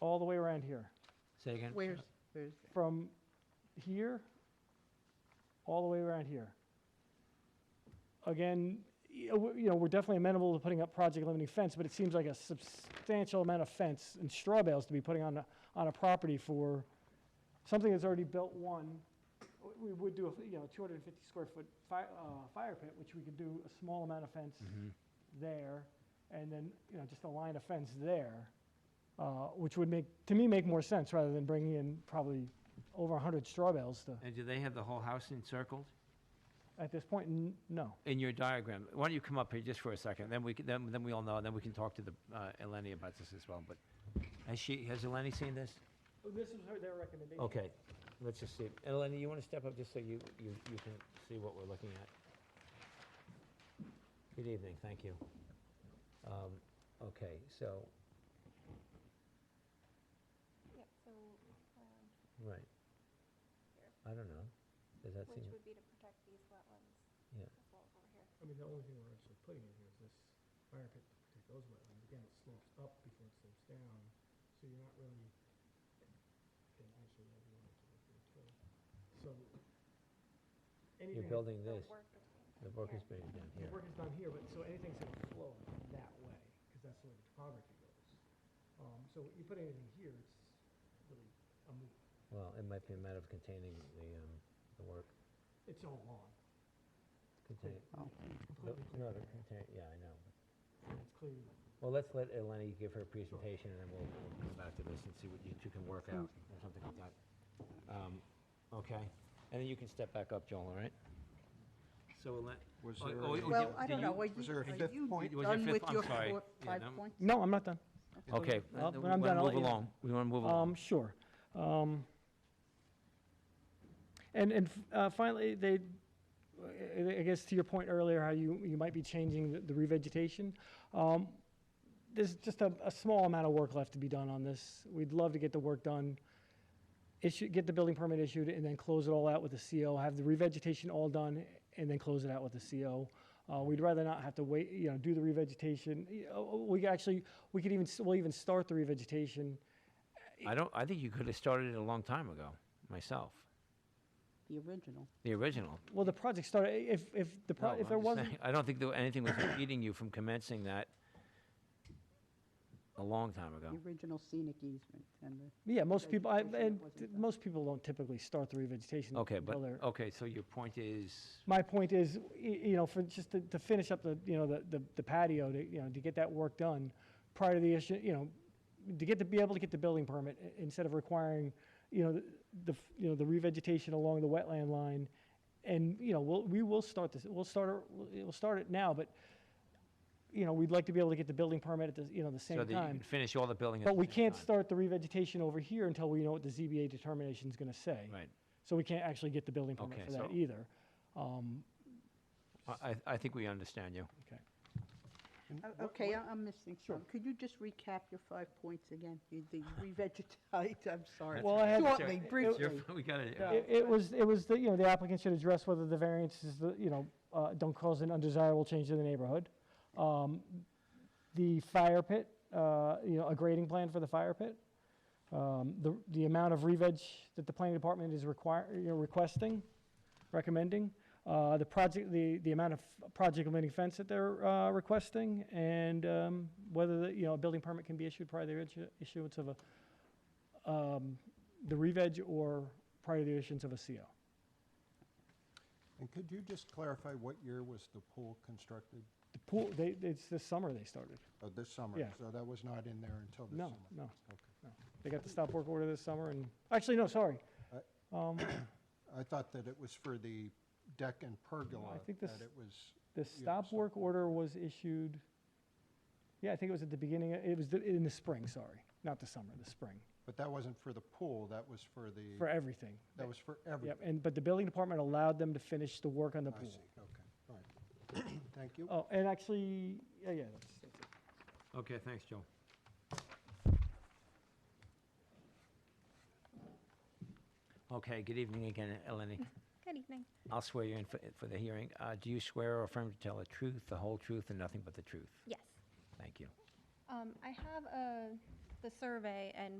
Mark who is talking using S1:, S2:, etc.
S1: all the way around here,
S2: Say again? Uh,
S3: Where's, where's, that?
S1: from here all the way around here. Again, y- uh, w- you know, we're definitely amenable to putting up project limiting fence, but it seems like a substantial amount of fence and straw bales to be putting on, a- on a property for something that's already built one. W- We would do, a f- you know, 250 square foot fire, uh, fire pit, which we could do a small amount of fence
S2: mm-hmm.
S1: there, and then, you know, just a line of fence there, uh, which would make, to me, make more sense rather than bringing in probably over 100 straw bales to,
S2: And do they have the whole house encircled?
S1: at this point, n- no.
S2: In your diagram, why don't you come up here just for a second, then we, can- then, then we all know, and then we can talk to the, uh, Eleni about this as well, but, has she, has Eleni seen this?
S4: Oh,
S1: This is their recommendation.
S2: Okay, let's just see, it. Eleni, you wanna step up just so you, you, you can see what we're looking at? Good evening, thank you. Um, okay, so,
S5: Yep, so, um,
S2: right. I don't know, does that
S5: which
S2: seem,
S5: would be to protect these wetlands
S2: yeah,
S5: as well as over here.
S4: I mean, the only thing we're actually putting in here is this fire pit to protect those wetlands. Again, it slopes up before it slopes down, so you're not really, and actually, I don't know what to do too. So,
S2: you're
S4: anything,
S2: building
S5: The
S2: this,
S5: work between
S2: the
S5: them
S2: work
S5: here.
S2: is being done
S4: the
S2: here.
S4: work is done here, but, so anything's gonna flow that way, because that's the way the topography goes. Um, so you put anything here, it's really a moot,
S2: Well, it might be a matter of containing the, um, the work.
S4: it's all lawn,
S2: Contain, no,
S4: completely
S2: no,
S4: clear.
S2: the contain, yeah, I know.
S4: It's clear,
S2: Well, let's let Eleni give her presentation, and then we'll, we'll come back to this and see what you two can work out, or something like that. Um, Okay, and then you can step back up, Joel, all right? So Elen.
S6: Was
S2: oh,
S6: there
S2: oh,
S6: a-
S2: oh, did-
S3: well, I
S2: did
S3: don't know,
S2: you-
S3: are
S6: was there
S3: you,
S6: a
S3: are
S6: fifth
S3: you
S6: point?
S2: Was there a
S3: done
S2: fifth?
S3: with
S2: I'm
S3: your
S2: sorry.
S3: four,
S2: Yeah,
S3: five
S2: no.
S3: points?
S1: No, I'm not done.
S2: Okay,
S1: Well,
S2: uh,
S1: when
S2: we
S1: I'm
S2: wanna
S1: done, I'll
S2: move
S1: let you know.
S2: along, we wanna move along.
S1: Um, sure. Um, and and f- uh, finally, they, I I guess to your point earlier, how you, you might be changing the, the revegetation. Um, there's just a, a small amount of work left to be done on this. We'd love to get the work done, issue, get the building permit issued, and then close it all out with the CO. Have the revegetation all done, and then close it out with the CO. Uh, we'd rather not have to wait, you know, do the revegetation. You know, We could actually, we could even, s- we'll even start the revegetation
S2: I don't, I think you could have started it a long time ago, myself,
S3: The original.
S2: the original.
S1: Well, the project started, i- if, if the, pro- if
S2: No, Oh, I'm
S1: there
S2: just
S1: wasn't,
S2: saying, I don't think there anything was impeding you from commencing that a long time ago.
S3: The original scenic easement and the,
S1: yeah, most people, I,
S3: Vegetation
S1: and
S3: wasn't
S1: t-
S3: done.
S1: most people don't typically start the revegetation.
S2: Okay, but, oh.
S1: until they're-
S2: okay, so your point is,
S1: My point is, y- you know, for, just to, to finish up the, you know, the- the, the patio, to, you know, to get that work done prior to the issue, you know, to get to be able to get the building permit, i- instead of requiring, you know, the, f- you know, the revegetation along the wetland line. And, you know, we'll, we will start this, we'll start, it- we'll we'll start it now, but, you know, we'd like to be able to get the building permit at the, you know, the
S2: so
S1: same
S2: that you
S1: time.
S2: can finish all the building at the
S1: But we
S2: same
S1: can't
S2: time.
S1: start the revegetation over here until we know what the ZBA determination is going to say.
S2: Right.
S1: So we can't actually get the building permit
S2: Okay,
S1: for that
S2: so-
S1: either. Um,
S2: I, I- I think we understand you.
S1: Okay.
S2: Mm-hmm.
S3: Oh, okay, I- I'm missing some. Could you just recap your five points again? You- The revegetate, I'm sorry.
S1: Well, I had-
S3: Shortly, briefly.
S2: We got it.
S1: It it was, it was, the you know, the applicant should address whether the variance is, the you know, uh, don't cause an undesirable change to the neighborhood. Um, The fire pit, uh, you know, a grading plan for the fire pit. Um, The, the amount of re-veg that the planning department is require, you know, requesting, recommending. uh, The project, the, the amount of project limiting fence that they're uh, requesting and um, whether, the you know, a building permit can be issued prior to the issu- issuance of a, um, the re-veg or prior to the issuance of a CO.
S6: And could you just clarify what year was the pool constructed?
S1: The pool, they, it's this summer they started.
S6: Oh, this summer?
S1: Yeah.
S6: So that was not in there until this
S1: No,
S6: summer?
S1: no,
S6: Okay.
S1: no. They got the stop work order this summer and, actually, no, sorry. Um,
S6: I thought that it was for the deck and pergola,
S1: think
S6: that
S1: this-
S6: it was,
S1: The stop
S6: stop
S1: work
S6: work.
S1: order was issued, yeah, I think it was at the beginning, it was the- in the spring, sorry, not the summer, the spring,
S6: but that wasn't for the pool, that was for the,
S1: for everything.
S6: that was for
S1: Yep,
S6: everything?
S1: and, but the building department allowed them to finish the work on the
S6: I see,
S1: pool.
S6: okay, all right. Thank you.
S1: Oh, and actually, yeah, yeah, that's, that's it.
S2: Okay, thanks, Joe. Okay, good evening again, Eleni.
S5: Good evening.
S2: I'll swear you in for, for the hearing. Uh, do you swear or affirm to tell the truth, the whole truth, and nothing but the truth?
S5: Yes.
S2: Thank you.
S5: Um, I have, uh, the survey and